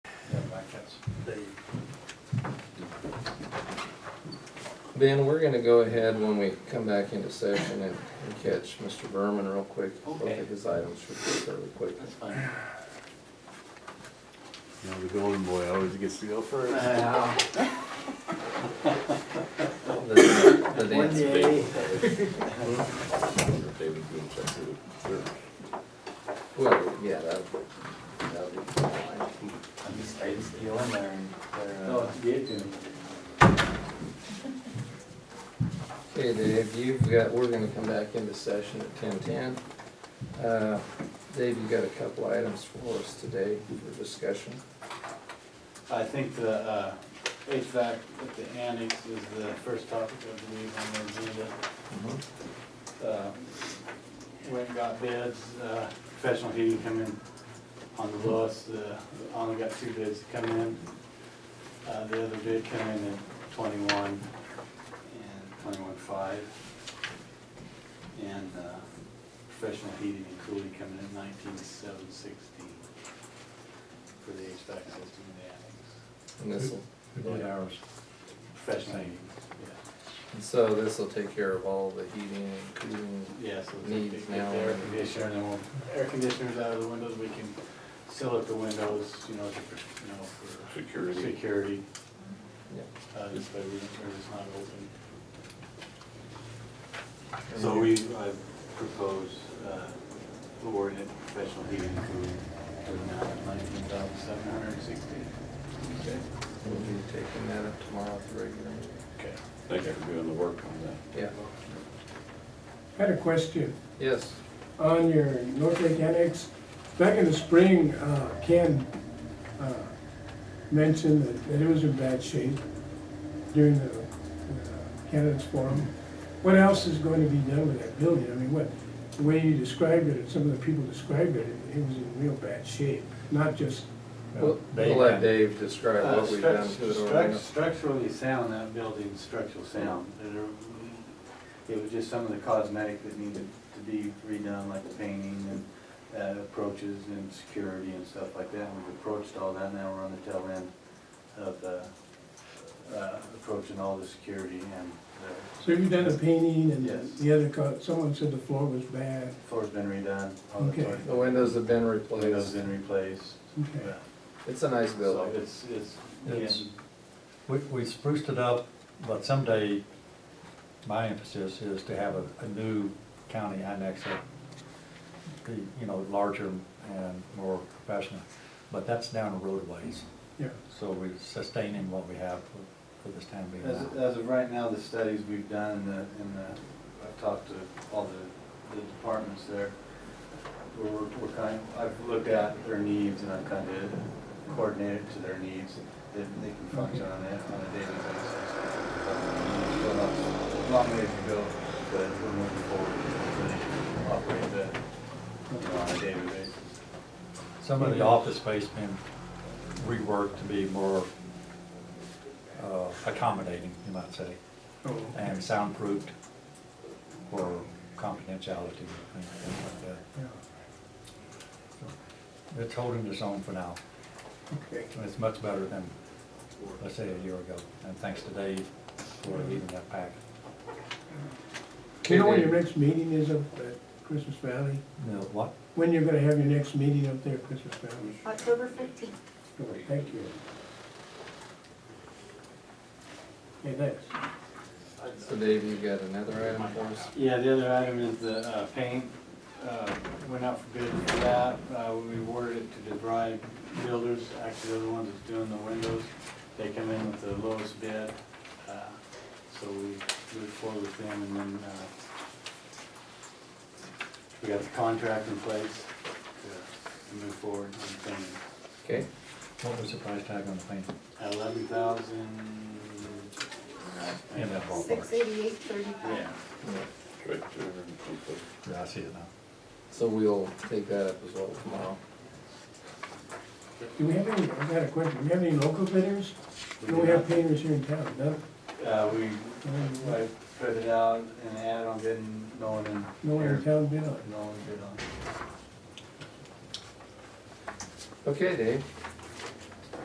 Ben, we're gonna go ahead when we come back into session and and catch Mr. Berman real quick. Both Okay. of his items should be fairly quick. That's fine. You know, the golden boy always gets to go first. Uh, The the One dance day, David Boone's like the third. Well, yeah, that would, that would be fine. I'm just, I just feel in there and they're, uh, Oh, give it to me. Okay, Dave, you've got, we're gonna come back into session at ten ten. Uh, Dave, you've got a couple items for us today for discussion. I think the uh, HVAC at the annex is the first topic I believe on the agenda. Mm-hmm. uh, went and got bids, uh, professional heating come in on the lowest, uh, only got two bids to come in. Uh, the other bid came in at twenty-one and twenty-one five. And, uh, professional heating and cooling coming in at nineteen seven sixteen for the HVAC system in the annex. And this'll, ours. Professional heating, and so this'll take care of all the heating and cooling. yeah, yeah, so it's Needs get now. the air conditioner, and then we'll, air conditioners out of the windows, we can seal up the windows, you know, to, you know, for Security. security, Yeah. uh, this way we don't, it's not open. And So you- we, I propose, uh, awarding it professional heating and cooling for the amount of nineteen thousand seven hundred and sixty. Okay, we'll be taking that up tomorrow at the regular meeting. Okay. Thank you for doing the work on that. Yeah, I Had a question yes, on your North Lake Annex. Back in the spring, uh, Ken uh, mentioned that- that it was in bad shape during the uh, candidates forum. What else is going to be done with that building? I mean, what, the way you described it, and some of the people described it, it was in real bad shape, not just, we'll we'll let Dave describe Uh, what we've done to struct- it already. struct- Structurally sound, that building's structural sound. There- It was just some of the cosmetic that needed to be redone, like the painting and uh, approaches and security and stuff like that. We've approached all that, now we're on the tail end of uh, uh, approaching all the security and the so you've done the painting and Yes. the other, co- someone said the floor was bad. floor's been redone. all the Okay. toilet- The windows have been Windows replaced, been replaced. Okay. Yeah. it's a nice So building. it's, it's It's- getting We, we spruced it up, but someday, my emphasis is to have a, a new county annex that, the, you know, larger and more professional, but that's down the roadways, Yeah, so we're sustaining what we have for, for this time being As, now. as of right now, the studies we've done and the, and the, I've talked to all the, the departments there. We're, we're kind, I've looked at their needs and I've kind of coordinated to their needs, that they can function on it on a daily basis. Still not- Long way to go, but we're moving forward, to operate that, you know, on a daily basis. Some of the office space been reworked to be more, uh, accommodating, you might say, oh, and soundproofed for confidentiality and things like that. yeah, It's holding its own for now, okay. and it's much better than, let's say, a year ago. And thanks to Dave for leading that pack. You know when Okay, your Dave. next meeting is up at Christmas Valley? You know, what? When you're gonna have your next meeting up there, Christmas Valley? October fifteenth. Good, Thank you. Hey, thanks. So Dave, you've got another item for us? Yeah, the other item is the uh, paint. Uh, Went out for bid for that. Uh, We awarded it to DeVry Builders, actually they're the ones that's doing the windows. They come in with the lowest bid. uh, So we moved forward with them and then uh, we got the contract in place to- to move forward on painting. Okay, What was the price tag on the paint? Eleven thousand. In that Six ballpark? eighty-eight thirty-five. Yeah. yeah. Right there and something. Yeah, I see it now. so we'll take that up as well tomorrow. Do we have any, I've got a question, do we have any local bidders? Do we have painters here in town, no? Uh, we, Mm. I put it out and ad on bid, and no one in. No one in town bid on it? No one bid on. it. Okay, Dave,